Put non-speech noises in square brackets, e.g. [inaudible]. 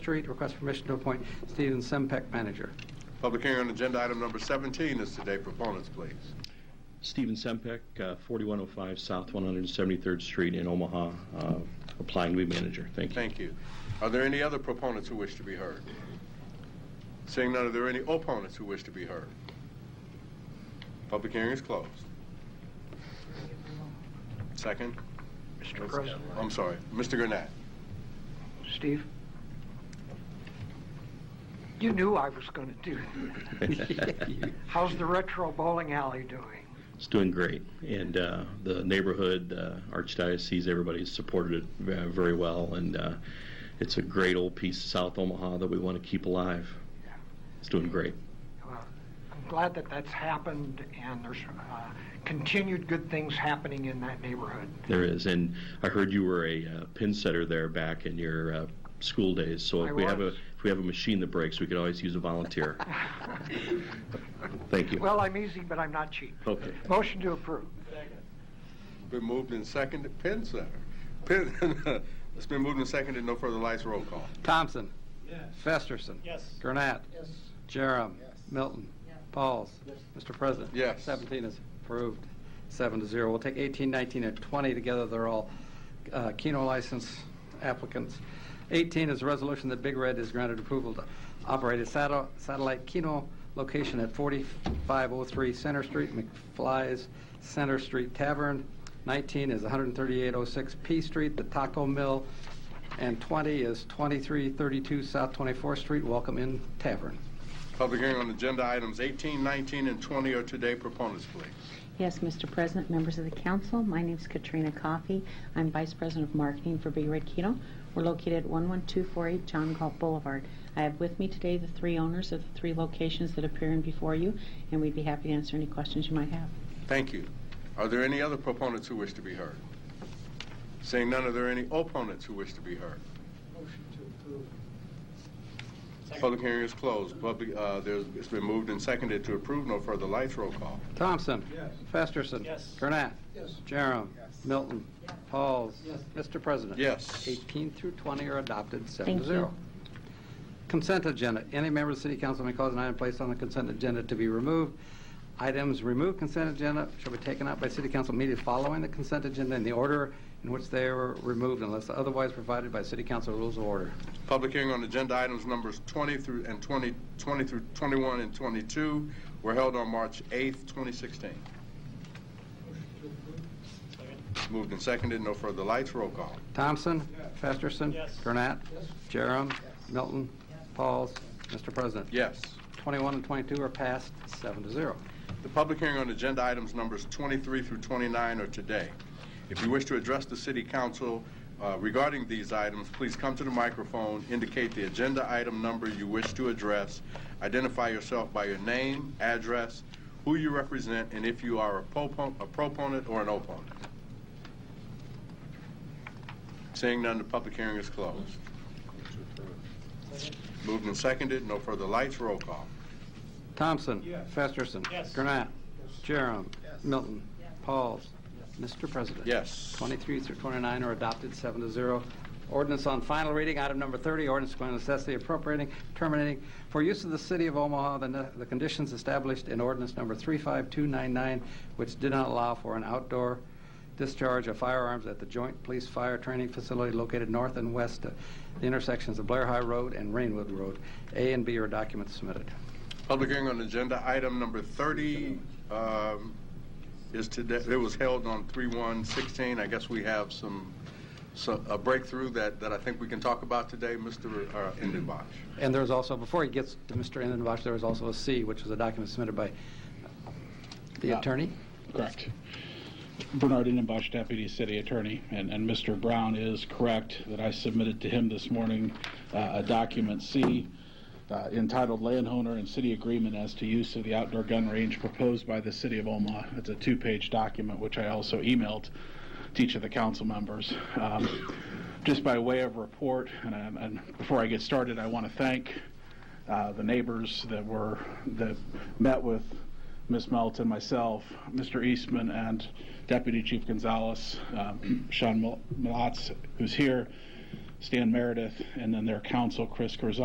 Street, request permission to appoint Stephen Sempec manager. [laughs] Public hearing on agenda item number 17 is today. Proponents, please. Stephen Sempek, uh, 4105 South 173rd Street in Omaha, uh, applying to be manager. Thank you. Thank you. Are there any other proponents who wish to be heard? Seeing none, are there any opponents who wish to be heard? Public hearing is closed. Second? Mr. President, I'm sorry, Mr. Gurnett. Steve, you knew I was going to do that. How's the retro bowling alley doing? [laughs] It's doing great. And uh, the neighborhood, uh, Archdiocese, everybody's supported it ve- very well. And uh, it's a great old piece of South Omaha that we want to keep alive. Yeah. It's doing great. Well, I'm glad that that's happened and there's uh, continued good things happening in that neighborhood. [laughs] There is. And I heard you were a uh, pin setter there back in your uh, school days. So if I we have a was. if we have a machine that breaks, we could always use a [laughs] volunteer. Thank you. Well, I'm easy, but I'm not cheap. Okay. Motion to approve. Been moved and seconded, Penn Center. Penn, [laughs] it's been moved and seconded, no further lights, roll call. Thompson. Festerson. Gurnett. Jerem. Milton. Pauls. Mr. President. Yes. 17 is approved, seven to zero. We'll take 18, 19, and 20 together. They're all uh, Keno license applicants. 18 is a resolution that Big Red is granted approval to operate a satel- satellite Keno location at 4503 Center Street, McFly's Center Street Tavern. 19 is 13806 P Street, the Taco Mill. And 20 is 2332 South 24th Street, Welcome Inn Tavern. Public hearing on agenda items 18, 19, and 20 are today. Proponents, please. Yes, Mr. President, members of the council, my name is Katrina Coffey. I'm Vice President of Marketing for Big Red Keto. We're located at 11248 John Galt Boulevard. I have with me today the three owners of the three locations that appear in before you, and we'd be happy to answer any questions you might have. Thank you. Are there any other proponents who wish to be heard? Seeing none, are there any opponents who wish to be heard? Motion to approve. Public hearing is closed. Public, uh, there's, it's been moved and seconded to approve. No further lights. Roll call. Thompson. Festerson. Gurnett. Jerem. Milton. Pauls. Mr. President. Yes. 18 through 20 are adopted, seven Thank to you. zero. Consent agenda. Any member of the city council may cause an item placed on the consent agenda to be removed. Items removed consent agenda shall be taken up by city council meeting following the consent agenda in the order in which they were removed unless otherwise provided by city council rules of order. Public hearing on agenda items numbers 20 through, and 20, 20 through 21 and 22 were held on March 8th, 2016. Moved and seconded. No further lights. Roll call. Thompson. Festerson. Gurnett. Jerem. Milton. Pauls. Mr. President. Yes. 21 and 22 are passed, seven to zero. The public hearing on agenda items numbers 23 through 29 are today. If you wish to address the city council uh, regarding these items, please come to the microphone, indicate the agenda item number you wish to address, identify yourself by your name, address, who you represent, and if you are a propon- a proponent or an opponent. Seeing none, the public hearing is closed. Moved and seconded, no further lights, roll call. Thompson. Festerson. Gurnett. Jerem. Milton. Pauls. Mr. President. Yes. 23 through 29 are adopted, seven to zero. Ordinance on final reading, item number 30, ordinance going to necessity appropriating, terminating for use of the city of Omaha the ne- the conditions established in ordinance number 35299, which did not allow for an outdoor discharge of firearms at the Joint Police Fire Training Facility located north and west of the intersections of Blair High Road and Rainwood Road. A and B are documents submitted. Public hearing on agenda item number 30 um, is today, it was held on 3/1/16. I guess we have some, so- a breakthrough that, that I think we can talk about today, Mr. uh, Indenbosch. And there's also, before he gets to Mr. Indenbosch, there was also a C, which was a document submitted by the Yeah. attorney. Correct. Bernard Innenbosch, Deputy City Attorney, and, and Mr. Brown is correct that I submitted to him this morning uh, a document C uh, entitled Landowner and City Agreement as to Use of the Outdoor Gun Range Proposed by the City of Omaha. It's a two-page document, which I also emailed to each of the council members. Um, Just by way of report, and, I- and before I get started, I want to thank uh, the neighbors that were, that met with Ms. Melton, myself, Mr. Eastman, and Deputy Chief Gonzalez, um, Sean Mil- Malatz, who's here, Stan Meredith, and then their counsel, Chris Corzine.